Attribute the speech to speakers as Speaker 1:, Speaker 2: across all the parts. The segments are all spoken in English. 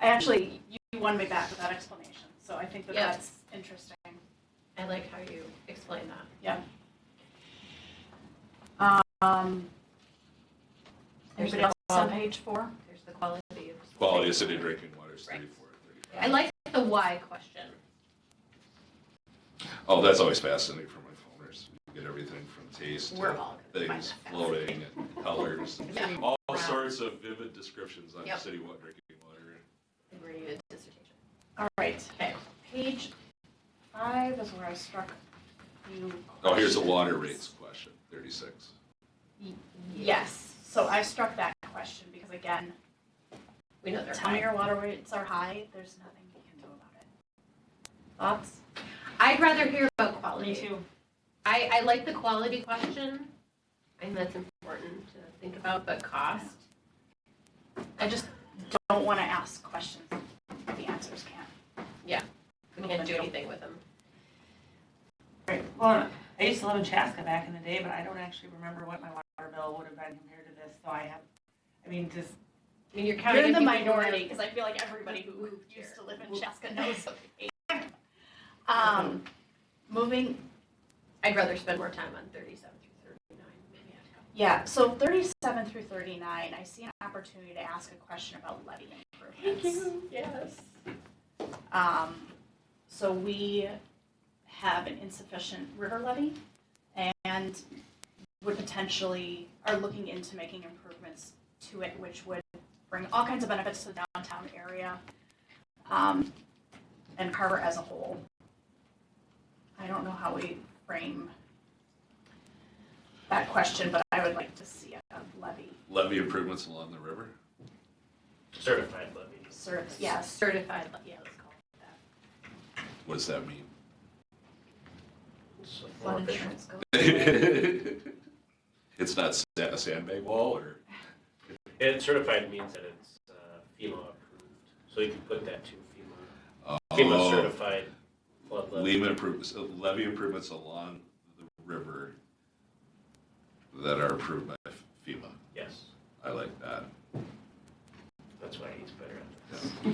Speaker 1: Actually, you- you won me back with that explanation, so I think that
Speaker 2: Yeah.
Speaker 1: that's interesting.
Speaker 2: I like how you explain that.
Speaker 1: Um,
Speaker 2: There's
Speaker 1: Anybody
Speaker 2: the
Speaker 1: else on
Speaker 2: quality.
Speaker 1: page four?
Speaker 2: There's the quality of.
Speaker 3: Quality of city drinking water is thirty-four.
Speaker 2: I like the why question.
Speaker 3: Oh, that's always fascinating for my phoners. You get everything from taste
Speaker 2: We're
Speaker 3: to
Speaker 2: all gonna find
Speaker 3: things
Speaker 2: that
Speaker 3: floating and colors.
Speaker 2: Yeah.
Speaker 3: All
Speaker 2: Wow.
Speaker 3: sorts of vivid descriptions on
Speaker 2: Yep.
Speaker 3: city water drinking water.
Speaker 2: We're gonna do a dissertation.
Speaker 1: All right,
Speaker 2: Okay,
Speaker 1: page five is where I struck you.
Speaker 3: Oh, here's the
Speaker 1: questions.
Speaker 3: water rates question, thirty-six.
Speaker 2: yes,
Speaker 1: So I struck that question because again,
Speaker 2: we know they're
Speaker 1: tell me
Speaker 2: high.
Speaker 1: your water rates are high, there's nothing you can do about it. Thoughts?
Speaker 2: I'd rather hear about quality.
Speaker 1: Me too.
Speaker 2: I, I like the quality question. I think that's important to think about, but cost. I just,
Speaker 1: Don't want to ask questions. The answers can't.
Speaker 2: we can't do anything with them.
Speaker 4: Right, well, I used to live in Chaska back in the day, but I don't actually remember what my water bill would have been compared to this, so I have, I mean, just,
Speaker 2: I mean, you're counting.
Speaker 1: You're in the
Speaker 2: people who are-
Speaker 1: minority because I feel like everybody who
Speaker 2: Moved here.
Speaker 1: used to live in Chaska knows. Um, moving,
Speaker 2: I'd rather spend more time on thirty-seven through thirty-nine, maybe.
Speaker 1: yeah, so thirty-seven through thirty-nine, I see an opportunity to ask a question about levy improvements.
Speaker 2: yes.
Speaker 1: Um, so we have an insufficient river levy and would potentially, are looking into making improvements to it, which would bring all kinds of benefits to the downtown area, um, and Carver as a whole. I don't know how we frame that question, but I would like to see a levy
Speaker 3: Levy improvements along the river.
Speaker 5: Certified levies.
Speaker 1: served, yes,
Speaker 2: Certified, le- yeah, let's call it that.
Speaker 3: What does that mean?
Speaker 5: So more
Speaker 2: flood
Speaker 5: efficient.
Speaker 2: insurance goes.
Speaker 3: It's not sa- a sandbag wall or,
Speaker 5: And certified means that it's uh, FEMA approved, so you can put that to FEMA. FEMA
Speaker 3: oh,
Speaker 5: certified flood levy.
Speaker 3: levy improvements, uh, levy improvements along the river that are approved by FEMA.
Speaker 5: Yes,
Speaker 3: I like that.
Speaker 5: that's why he's better at
Speaker 2: He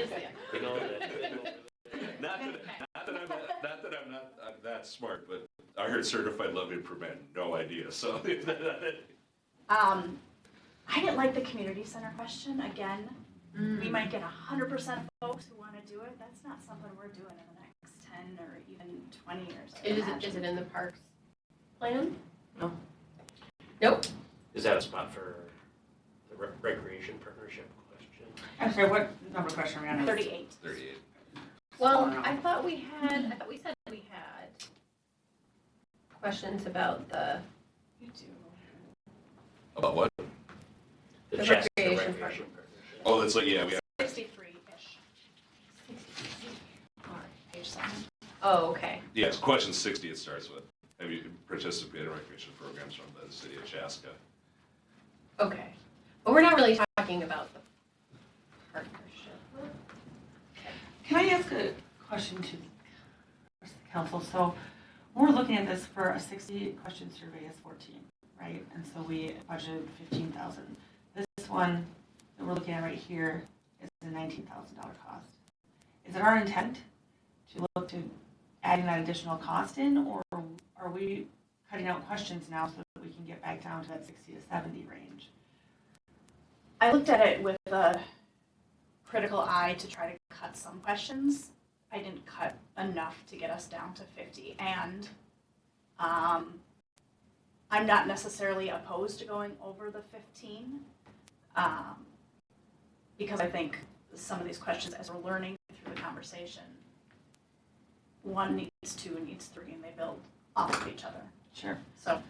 Speaker 2: is the expert.
Speaker 5: this. You know, that-
Speaker 3: Not that, not that I'm, not that I'm not, I'm that smart, but I heard certified levy improvement, no idea, so.
Speaker 1: Um, I didn't like the community center question, again,
Speaker 2: Mm.
Speaker 1: we might get hundred percent folks who wanna do it, that's not something we're doing in the next ten or even twenty years. I
Speaker 2: It Is it,
Speaker 1: imagine.
Speaker 2: is it in the parks plan?
Speaker 5: No.
Speaker 2: Nope,
Speaker 5: Is that a spot for the re- recreation partnership question?
Speaker 4: I'm sorry, what number question are we on?
Speaker 1: Thirty-eight.
Speaker 3: Thirty-eight.
Speaker 2: well, I thought we had, I thought we said we had questions about the
Speaker 1: You do.
Speaker 3: About what?
Speaker 2: The
Speaker 5: Chaska
Speaker 2: recreation
Speaker 5: partnership.
Speaker 3: Oh, that's like, yeah, we have,
Speaker 1: Sixty-three-ish, page seven.
Speaker 2: Oh, okay,
Speaker 3: yeah, it's question sixty it starts with. Have you participated in recreation programs from the city of Chaska?
Speaker 2: okay, but we're not really talking about the partnership.
Speaker 4: Can I ask a question to the council? So we're looking at this for a sixty question survey is fourteen, right? And so we budgeted fifteen thousand. This one that we're looking at right here is a nineteen thousand dollar cost. Is it our intent to look to adding that additional cost in or are we cutting out questions now so that we can get back down to that sixty to seventy range?
Speaker 1: I looked at it with a critical eye to try to cut some questions. I didn't cut enough to get us down to fifty, and um, I'm not necessarily opposed to going over the fifteen, um, because I think some of these questions, as we're learning through the conversation, one needs two, needs three, and they build off of each other.
Speaker 4: Sure.
Speaker 1: So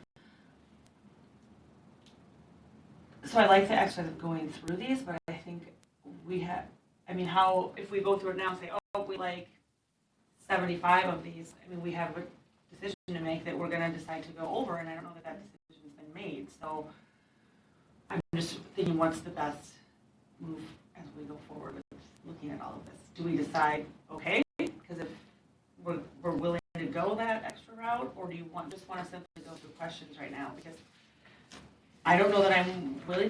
Speaker 4: So I like the exercise of going through these, but I think we have, I mean, how, if we go through it now and say, oh, we like seventy-five of these, I mean, we have a decision to make that we're gonna decide to go over, and I don't know that that decision's been made, so I'm just thinking, what's the best move as we go forward with looking at all of this? Do we decide, okay, because if we're, we're willing to go that extra route, or do you want, just wanna simply go through questions right now? Because I don't know that I'm willing